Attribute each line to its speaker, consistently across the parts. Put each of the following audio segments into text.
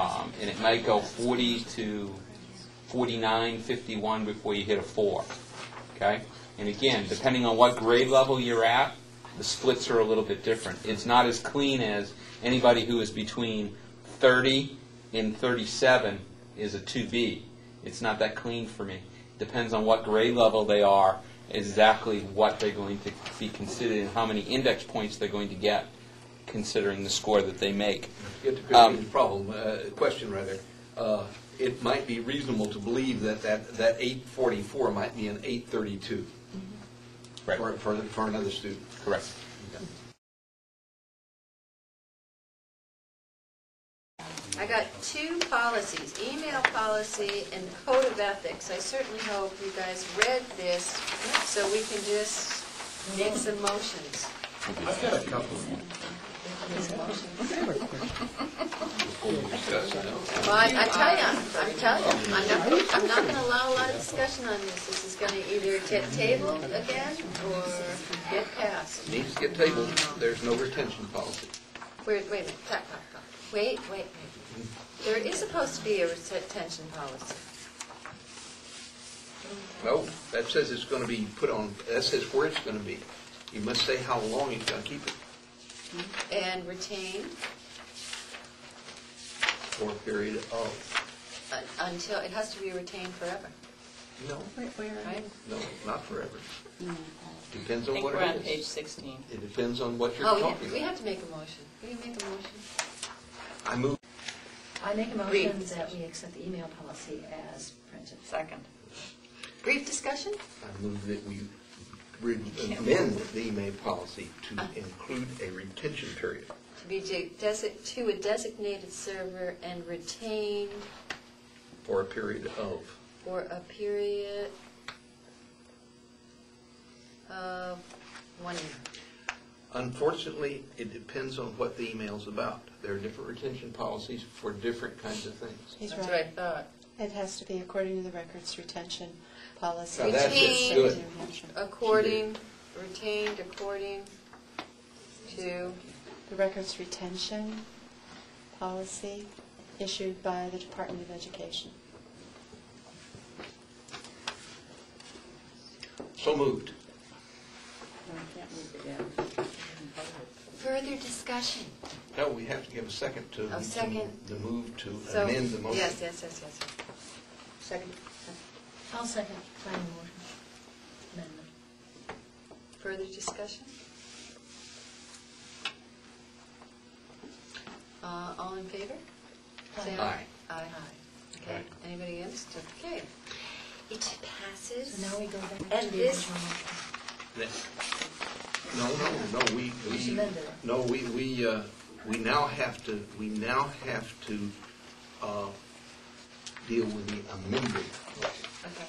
Speaker 1: Um, and it might go 40 to 49, 51 before you hit a four, okay? And again, depending on what grade level you're at, the splits are a little bit different. It's not as clean as anybody who is between 30 and 37 is a 2B. It's not that clean for me. Depends on what grade level they are, exactly what they're going to be considered and how many index points they're going to get considering the score that they make.
Speaker 2: Get to Christine's problem, uh, question rather. Uh, It might be reasonable to believe that that, that 844 might be an 832
Speaker 1: Right.
Speaker 2: for, for, for another student.
Speaker 1: Correct.
Speaker 3: I got two policies, email policy and code of ethics. I certainly hope you guys read this, so we can just make some motions.
Speaker 4: I've got a couple.
Speaker 3: Well, I I tell you, I'm telling you, I'm not, I'm not gonna allow a lot of discussion on this. This is gonna either get tabled again or get passed.
Speaker 2: Needs to get tabled, there's no retention policy.
Speaker 3: Wait, wait a minute, Pop, pop, pop. wait, wait, wait. There is supposed to be a retention policy.
Speaker 2: No, that says it's going to be put on, that says where it's going to be. You must say how long it's going to keep it
Speaker 3: And retain
Speaker 2: for a period of,
Speaker 3: un- uh, until, it has to be retained forever,
Speaker 2: no,
Speaker 3: right?
Speaker 2: no, not forever. Depends
Speaker 5: I
Speaker 2: on
Speaker 5: think
Speaker 2: what
Speaker 5: we're on
Speaker 2: it
Speaker 5: page
Speaker 2: is.
Speaker 5: 16.
Speaker 2: It depends on what you're
Speaker 3: Oh, we
Speaker 2: talking
Speaker 3: have- we
Speaker 2: about.
Speaker 3: have to make a motion. Will you make a motion?
Speaker 2: I move
Speaker 6: I make a
Speaker 3: Read.
Speaker 6: motion that we accept the email policy as printed.
Speaker 5: Second.
Speaker 3: Brief discussion?
Speaker 2: I move that we re- amend the email policy to include a retention period.
Speaker 3: To be de- desi- to a designated server and retained
Speaker 2: For a period of.
Speaker 3: for a period of one year.
Speaker 2: Unfortunately, it depends on what the email's about. There are different retention policies for different kinds of things.
Speaker 7: He's
Speaker 3: That's what I
Speaker 7: right.
Speaker 3: thought.
Speaker 7: It has to be according to the records retention policy.
Speaker 2: Now, that's
Speaker 3: it.
Speaker 2: Good.
Speaker 3: According, retained according to,
Speaker 7: The records retention policy issued by the Department of Education.
Speaker 2: So moved.
Speaker 3: further discussion.
Speaker 2: No, we have to give a second to.
Speaker 3: A second.
Speaker 2: The move to
Speaker 3: So,
Speaker 2: amend the motion.
Speaker 3: Yes, yes, yes, yes. Second,
Speaker 6: I'll second my motion. Amendment.
Speaker 3: further discussion? Uh, All in favor? Say
Speaker 2: Aye.
Speaker 3: Aye, aye. Okay, anybody against? Okay. It
Speaker 6: So now
Speaker 3: passes.
Speaker 6: we go back to the
Speaker 3: And
Speaker 6: original
Speaker 3: this-
Speaker 6: motion.
Speaker 2: That- No, no, no, we,
Speaker 6: We
Speaker 2: we,
Speaker 6: should amend it.
Speaker 2: no, we, we, uh, we now have to, we now have to uh, deal with the amended. motion.
Speaker 3: Okay,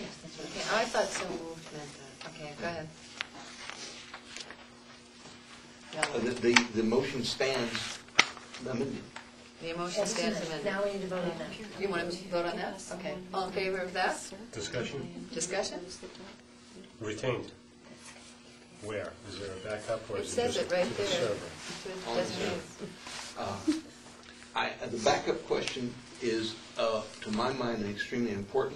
Speaker 6: Yes, that's right.
Speaker 3: okay, I thought so moved meant that. Okay, go ahead.
Speaker 2: Uh, The, the- the motion stands amended.
Speaker 3: The motion
Speaker 6: As
Speaker 3: stands
Speaker 6: amended.
Speaker 3: amended.
Speaker 6: Now we need to vote on that.
Speaker 3: You want to vote on that? Okay, all in favor of that?
Speaker 4: Discussion?
Speaker 3: Discussion?
Speaker 4: Retained. Where? Is there a backup or
Speaker 3: It
Speaker 4: is it
Speaker 3: says
Speaker 4: just
Speaker 3: it
Speaker 4: to
Speaker 3: right
Speaker 4: the
Speaker 3: there.
Speaker 4: server?
Speaker 2: On the server.
Speaker 3: Designated.
Speaker 2: Uh, I, the backup question is, uh, to my mind, an extremely important